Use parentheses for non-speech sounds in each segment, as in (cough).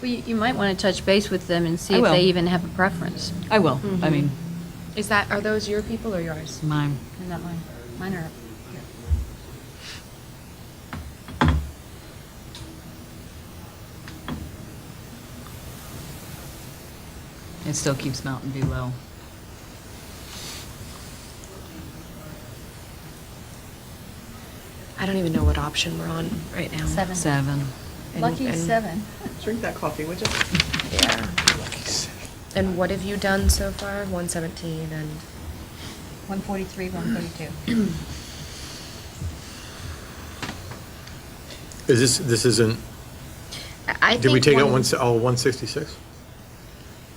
Well, you you might want to touch base with them and see I if will. they even have a preference. I will, I mean, Is that, are those your people or yours? mine. Not mine. Mine are up here. It still keeps Mountain View low. I don't even know what option we're on right now. Seven. Seven. And- Lucky and- seven. (laughs) Drink that coffee, would you? Yeah. And what have you done so far? 117 and 143, 142. Is this, this isn't, I- I did we think take out one- one, se- oh, 166?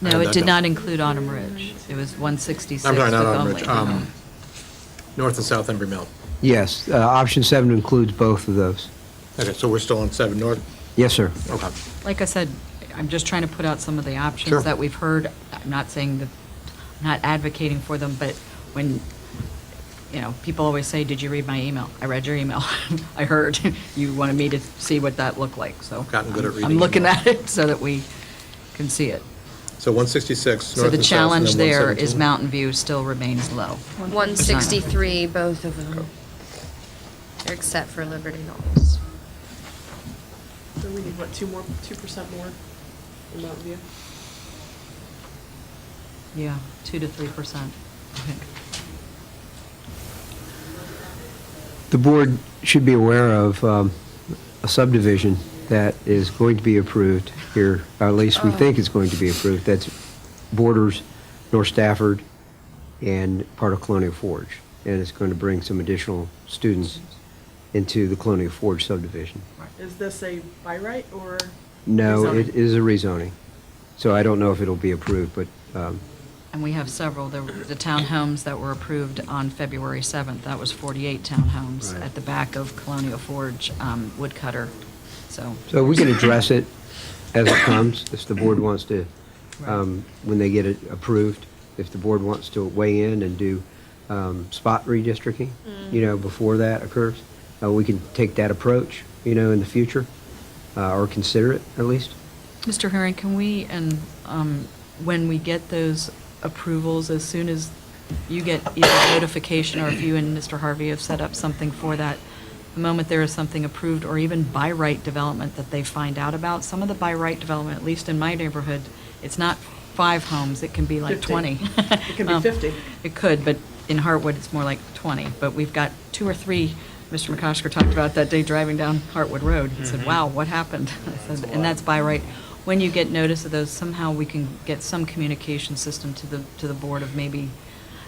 I No, had it that did down. not include Autumn Ridge. It was 166 I'm with sorry, not Autumn Ridge, only. um, North and South Embry Mill. Yes, uh, option seven includes both of those. Okay, so we're still on seven north, Yes, sir. okay. Like I said, I'm just trying to put out some of the Sure. options that we've heard. I'm not saying that, I'm not advocating for them, but when, you know, people always say, did you read my email? I read your email. (laughs) I heard you wanted me to see what that looked like, so. Gotten good at I'm- I'm reading looking emails. at it (laughs) so that we can see it. So 166, So north the and south, and challenge then there is 117. Mountain View still remains low. oh. 163, both of them. Except for Liberty Knowles. So we need, what, two more, two percent more in Mountain View? Yeah, 2 to 3%, I think. The board should be aware of um, a subdivision that is going to be approved here, or at least we think it's going to be approved, that's borders North Stafford and part of Colonial Forge. And it's going to bring some additional students into the Colonial Forge subdivision. Is this a by right or? No, rezoning? it is a rezoning. So I don't know if it'll be approved, but um, And we have several, There were the townhomes that were approved on February 7th, that was 48 townhomes Right. at the back of Colonial Forge um, Woodcutter, so. So we can address it as it comes, if the board wants to, Right. um, when they get it approved, if the board wants to weigh in and do um, spot redistricting, Mm. you know, before that occurs, uh, we can take that approach, you know, in the future, uh, or consider it at least. Mr. Herring, can we, and um, when we get those approvals, as soon as you get either notification or if you and Mr. Harvey have set up something for that, the moment there is something approved or even by right development that they find out about, some of the by right development, at least in my neighborhood, it's not five homes, it can be like 50. 20. It can (laughs) be Um, 50. It could, but in Hartwood, it's more like 20. But we've got two or three, Mr. McCosker talked about that day driving down Hartwood Road. He Mm-hmm. said, wow, what happened? (laughs) I said, And that's by right. When you get notice of those, somehow we can get some communication system to the, to the board of maybe,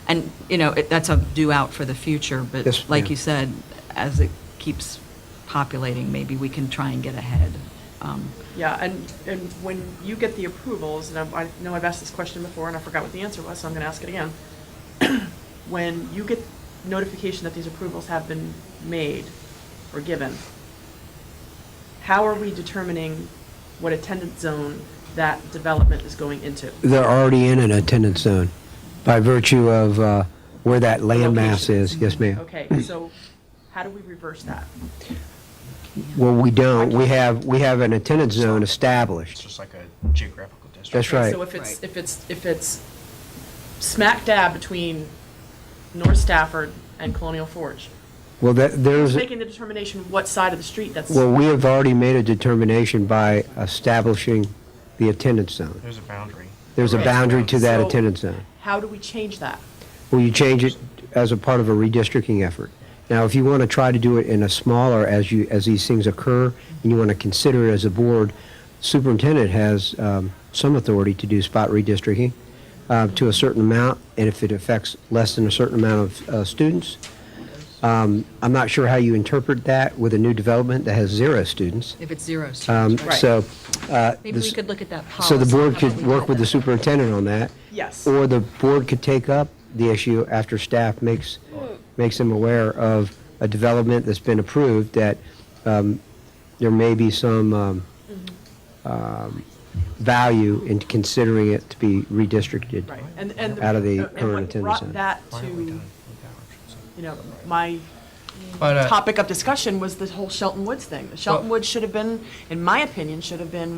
and, you know, it- that's a due out for the future, Yes, but like ma'am. you said, as it keeps populating, maybe we can try and get ahead. Um, Yeah, and, and when you get the approvals, and I've- I know I've asked this question before and I forgot what the answer was, so I'm going to ask it again. (clears throat) When you get notification that these approvals have been made or given, how are we determining what attendance zone that development is going into? They're already in an attendance zone by virtue of uh, where that land mass Location. is. Yes, ma'am. Okay, so how do we reverse that? Well, we don't. We have, we have an attendance zone It's established. just like a geographical district. That's right. So if it's, Right. if it's, if it's smack dab between North Stafford and Colonial Forge, Well, that, who's there's. making the determination what side of the street that's? Well, we have already made a determination by establishing the attendance zone. There's a boundary. There's a Right. boundary to that So- attendance zone. How do we change that? Will you change it as a part of a redistricting effort? Now, if you want to try to do it in a smaller, as you, as these things occur, and you want to consider it as a board, superintendent has um, some authority to do spot redistricting uh, to a certain amount, and if it affects less than a certain amount of uh, students. Um, I'm not sure how you interpret that with a new development that has zero students. If it's zero Um, students, right? So. uh, Maybe we this- could look at that policy. So the board How about could we work put with the that- superintendent on that? Yes. Or the board could take up the issue after staff makes, makes them aware of a development that's been approved, that um, there may be some um, um, value in considering it to be redistricted. Right, and, and. Out of the and what current attendance brought zone. that to, you know, my But, uh, topic of discussion was the whole Shelton Woods thing. The Shelton Woods should have been, in my opinion, should have been